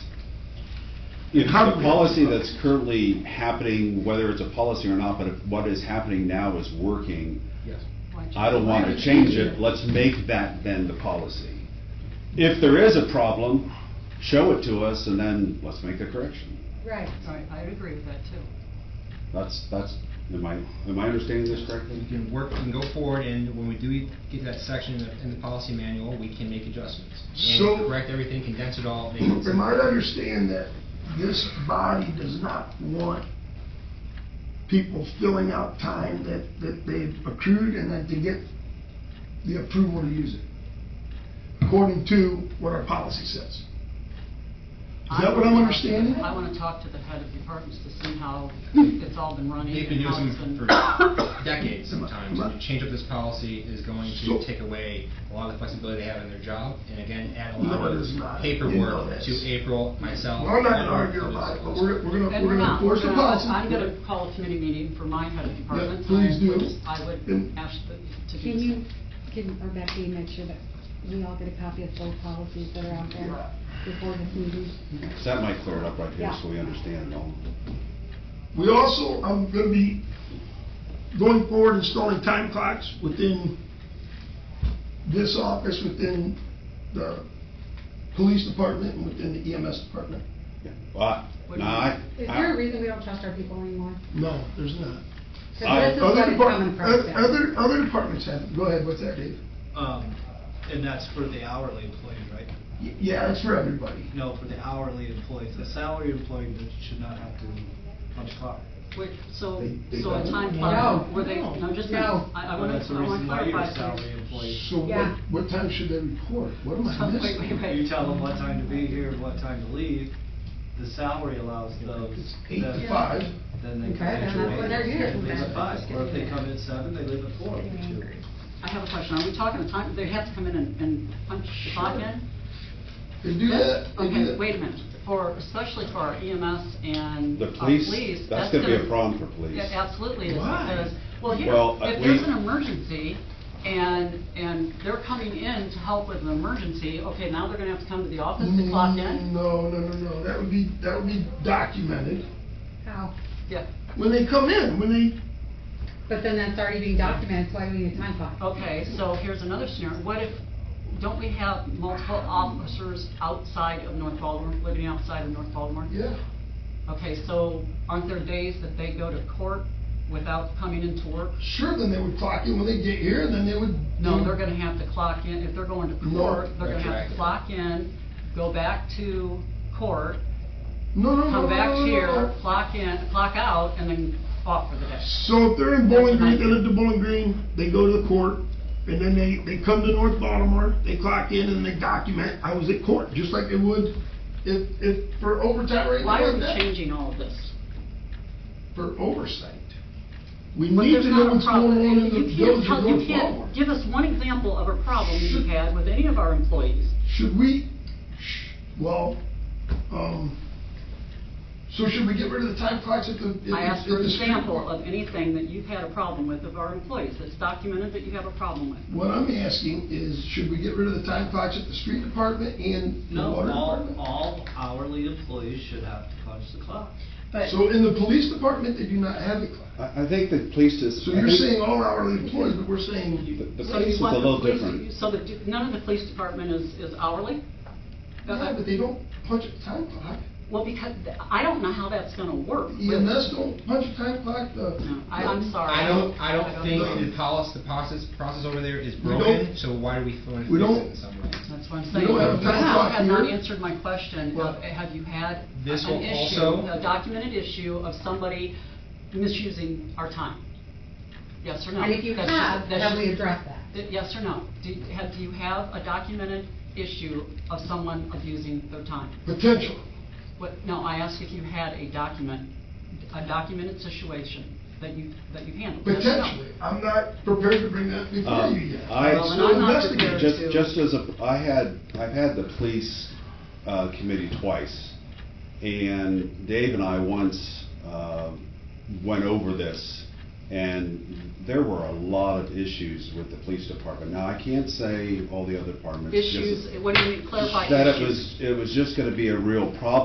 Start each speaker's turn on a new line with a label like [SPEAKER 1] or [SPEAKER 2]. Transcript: [SPEAKER 1] The current policy that's currently happening, whether it's a policy or not, but if what is happening now is working,
[SPEAKER 2] Yes.
[SPEAKER 1] I don't want to change it, let's make that then the policy. If there is a problem, show it to us and then let's make the correction.
[SPEAKER 3] Right.
[SPEAKER 4] Right, I would agree with that too.
[SPEAKER 1] That's, that's, am I, am I understanding this correctly?
[SPEAKER 2] We can work, we can go forward, and when we do get to that section in the, in the policy manual, we can make adjustments.
[SPEAKER 5] So-
[SPEAKER 2] And correct everything, condense it all, make it.
[SPEAKER 5] Am I to understand that this body does not want people filling out time that, that they've accrued and that they get the approval to use it? According to what our policy says. Is that what I'm understanding? Hmm.
[SPEAKER 4] I want to talk to the head of departments to see how it's all been running
[SPEAKER 2] They've
[SPEAKER 4] and
[SPEAKER 2] been
[SPEAKER 4] how
[SPEAKER 2] using
[SPEAKER 4] it's
[SPEAKER 2] them
[SPEAKER 4] been.
[SPEAKER 2] for decades sometimes, and to change up this policy is going
[SPEAKER 5] So-
[SPEAKER 2] to take away a lot of the flexibility they have in their job, and again, add a
[SPEAKER 5] No,
[SPEAKER 2] lot
[SPEAKER 5] it is not.
[SPEAKER 2] of
[SPEAKER 5] You know
[SPEAKER 2] paperwork
[SPEAKER 5] this.
[SPEAKER 2] to April, myself.
[SPEAKER 5] I'm not
[SPEAKER 2] and
[SPEAKER 5] gonna
[SPEAKER 2] the
[SPEAKER 5] argue
[SPEAKER 2] other
[SPEAKER 5] about it, but
[SPEAKER 2] schools.
[SPEAKER 5] we're, we're gonna,
[SPEAKER 4] And
[SPEAKER 5] we're gonna enforce the
[SPEAKER 4] gonna-
[SPEAKER 5] policy.
[SPEAKER 4] I'm going to call a committee meeting for my head of department.
[SPEAKER 5] please
[SPEAKER 4] I
[SPEAKER 5] do.
[SPEAKER 4] would- I would
[SPEAKER 5] And-
[SPEAKER 4] ask the- to do.
[SPEAKER 3] Can you, can, or Becky, make sure that we all get a copy of both policies that are out there before this meeting?
[SPEAKER 1] So That might clear it up right here
[SPEAKER 3] Yeah.
[SPEAKER 1] so we understand it all.
[SPEAKER 5] We also, I'm gonna be going forward installing time clocks within this office, within the police department, and within the EMS department.
[SPEAKER 1] Yeah. Well, I-
[SPEAKER 4] What do
[SPEAKER 1] no,
[SPEAKER 4] you-
[SPEAKER 1] I,
[SPEAKER 3] Is there a
[SPEAKER 1] I,
[SPEAKER 3] reason we don't trust our people anymore?
[SPEAKER 5] No, there's not.
[SPEAKER 1] I-
[SPEAKER 3] Because this is
[SPEAKER 5] Other
[SPEAKER 3] what is
[SPEAKER 5] depart-
[SPEAKER 3] coming
[SPEAKER 5] oth-
[SPEAKER 3] from. Seth.
[SPEAKER 5] Other, other departments have, it. go ahead, what's that, Dave?
[SPEAKER 6] Um, and that's for the hourly employees, right?
[SPEAKER 5] Y- Yeah, that's for everybody.
[SPEAKER 6] No, for the hourly employees. The salary employee does- should not have to punch clock.
[SPEAKER 4] Wait, so,
[SPEAKER 5] They- they
[SPEAKER 4] so a
[SPEAKER 5] don't.
[SPEAKER 4] time
[SPEAKER 5] No.
[SPEAKER 4] clock, were they,
[SPEAKER 3] No.
[SPEAKER 4] no, just, a-
[SPEAKER 3] No.
[SPEAKER 4] I, I
[SPEAKER 6] Well,
[SPEAKER 4] want
[SPEAKER 6] That's
[SPEAKER 4] to,
[SPEAKER 6] the
[SPEAKER 4] I want to
[SPEAKER 6] reason why you're a
[SPEAKER 4] clarify.
[SPEAKER 6] salary
[SPEAKER 4] something.
[SPEAKER 6] employee.
[SPEAKER 5] So
[SPEAKER 3] Yeah.
[SPEAKER 5] what, what time should they report? What am I
[SPEAKER 4] Oh, Wait, wait,
[SPEAKER 5] missing?
[SPEAKER 4] wait.
[SPEAKER 6] You tell them what time to be here, what time to leave. The salary allows those.
[SPEAKER 5] It's eight to
[SPEAKER 6] that-
[SPEAKER 5] five.
[SPEAKER 6] Then they
[SPEAKER 3] Okay,
[SPEAKER 6] come in.
[SPEAKER 3] then that's when they're
[SPEAKER 6] They
[SPEAKER 3] here.
[SPEAKER 6] leave at five, or if they
[SPEAKER 3] Getting
[SPEAKER 6] come in seven, they leave at four.
[SPEAKER 4] I have a question, are we talking a time, they have to come in and, and punch the clock in?
[SPEAKER 5] They do that, they do
[SPEAKER 4] Hmm? Okay,
[SPEAKER 5] that.
[SPEAKER 4] wait a minute, for, especially for our EMS and
[SPEAKER 1] the
[SPEAKER 4] our
[SPEAKER 1] police,
[SPEAKER 4] police.
[SPEAKER 1] that's gonna be a
[SPEAKER 4] gonna-
[SPEAKER 1] problem for police.
[SPEAKER 4] It absolutely is,
[SPEAKER 5] Why?
[SPEAKER 4] because, well, here,
[SPEAKER 1] Well, uh,
[SPEAKER 4] if
[SPEAKER 1] we-
[SPEAKER 4] there's an emergency, and, and they're coming in to help with an emergency, okay, now they're gonna have to come to the office to clock in?
[SPEAKER 5] Mm, No, no, no, no, that would be, that would be documented.
[SPEAKER 3] How?
[SPEAKER 5] Mm-hmm.
[SPEAKER 4] Yeah,
[SPEAKER 5] When they come in, when they,
[SPEAKER 3] But then that's already being documented, so why do we need a time clock?
[SPEAKER 4] okay, so here's another scenario, what if, don't we have multiple officers outside of North Baltimore, living outside of North Baltimore?
[SPEAKER 5] yeah,
[SPEAKER 4] Okay, so aren't there days that they go to court without coming into work?
[SPEAKER 5] sure, then they would clock in when they get here, and then they would.
[SPEAKER 4] No, they're gonna have to clock in, if they're going to
[SPEAKER 5] No,
[SPEAKER 4] court, they're gonna have to
[SPEAKER 2] retroactive.
[SPEAKER 4] clock in, go back to court,
[SPEAKER 5] No, no, no, no,
[SPEAKER 4] come back
[SPEAKER 5] no, no,
[SPEAKER 4] here,
[SPEAKER 5] no.
[SPEAKER 4] clock in, clock out, and then off for the day.
[SPEAKER 5] So if they're in Bowling Green, they live in Bowling Green, they go to the court, and then they, they come to North Baltimore, they clock in and they document, I was at court, just like they would if, if, for overtime or anything
[SPEAKER 4] Why are
[SPEAKER 5] like
[SPEAKER 4] we
[SPEAKER 5] that.
[SPEAKER 4] changing all of this?
[SPEAKER 5] For oversight. We
[SPEAKER 4] But
[SPEAKER 5] need
[SPEAKER 4] there's
[SPEAKER 5] to
[SPEAKER 4] not
[SPEAKER 5] know
[SPEAKER 4] a
[SPEAKER 5] what's
[SPEAKER 4] problem.
[SPEAKER 5] going on in
[SPEAKER 4] You
[SPEAKER 5] the
[SPEAKER 4] can't
[SPEAKER 5] village
[SPEAKER 4] tell-
[SPEAKER 5] of
[SPEAKER 4] You
[SPEAKER 5] North Baltimore.
[SPEAKER 4] can't give us one example of a problem you've had with any of our employees.
[SPEAKER 5] Should we, sh- well, um, so should we get rid of the time clocks at the? at the-
[SPEAKER 4] I asked for
[SPEAKER 5] at
[SPEAKER 4] an
[SPEAKER 5] the street
[SPEAKER 4] example
[SPEAKER 5] corner?
[SPEAKER 4] of anything that you've had a problem with of our employees, that's documented that you have a problem with.
[SPEAKER 5] What I'm asking is, should we get rid of the time clocks at the street department and the
[SPEAKER 6] No,
[SPEAKER 5] water
[SPEAKER 6] all,
[SPEAKER 5] department?
[SPEAKER 6] all hourly employees should have to punch the clock.
[SPEAKER 5] So in the police department, they do not have the clock.
[SPEAKER 1] I, I think the police is.
[SPEAKER 5] So
[SPEAKER 1] I
[SPEAKER 5] you're
[SPEAKER 1] think
[SPEAKER 5] saying all hourly employees, but we're saying,
[SPEAKER 1] The the
[SPEAKER 4] So
[SPEAKER 1] police
[SPEAKER 4] you
[SPEAKER 1] is a
[SPEAKER 4] want the
[SPEAKER 1] little
[SPEAKER 4] police-
[SPEAKER 1] different.
[SPEAKER 4] So the, none of the police department is, is hourly?
[SPEAKER 5] yeah, but they don't punch a time clock.
[SPEAKER 4] Well, because th- I don't know how that's gonna work.
[SPEAKER 5] EMS don't punch a time clock, uh, the.
[SPEAKER 4] No, I, I'm sorry.
[SPEAKER 2] I don't, I don't think
[SPEAKER 5] know.
[SPEAKER 2] the policy, the process, process over there is
[SPEAKER 5] We don't-
[SPEAKER 2] broken, so why do we want to fix
[SPEAKER 5] we don't-
[SPEAKER 2] it in some way?
[SPEAKER 4] That's what I'm saying.
[SPEAKER 5] don't have a time
[SPEAKER 4] You
[SPEAKER 5] clock
[SPEAKER 4] have not
[SPEAKER 5] here.
[SPEAKER 4] answered my question.
[SPEAKER 2] Well,
[SPEAKER 4] of, Have you had
[SPEAKER 2] this
[SPEAKER 4] an
[SPEAKER 2] will
[SPEAKER 4] issue,
[SPEAKER 2] also-
[SPEAKER 4] a documented issue of somebody misusing our time? Yes or no?
[SPEAKER 3] And if you
[SPEAKER 4] That's just-
[SPEAKER 3] have,
[SPEAKER 4] that's
[SPEAKER 3] have
[SPEAKER 4] just-
[SPEAKER 3] we addressed that?
[SPEAKER 4] th- Yes or no? Do, you- have, do you have a documented issue of someone abusing their time?
[SPEAKER 5] Potential.
[SPEAKER 4] What, no, I asked if you had a document, a documented situation that you, that you handled. Yes or no?
[SPEAKER 5] Potentially. I'm not prepared to bring that before
[SPEAKER 1] Um,
[SPEAKER 5] you yet.
[SPEAKER 1] I-
[SPEAKER 4] Well, and
[SPEAKER 5] So
[SPEAKER 4] I'm not
[SPEAKER 5] investigate.
[SPEAKER 4] prepared
[SPEAKER 1] Just,
[SPEAKER 4] to-
[SPEAKER 1] just as a, I had, I've had the police uh, committee twice, and Dave and I once uh, went over this, and there were a lot of issues with the police department. Now, I can't say all the other departments. just-
[SPEAKER 4] Issues, what do you mean, clarify issues?
[SPEAKER 1] That it was, it was just gonna be a real problem.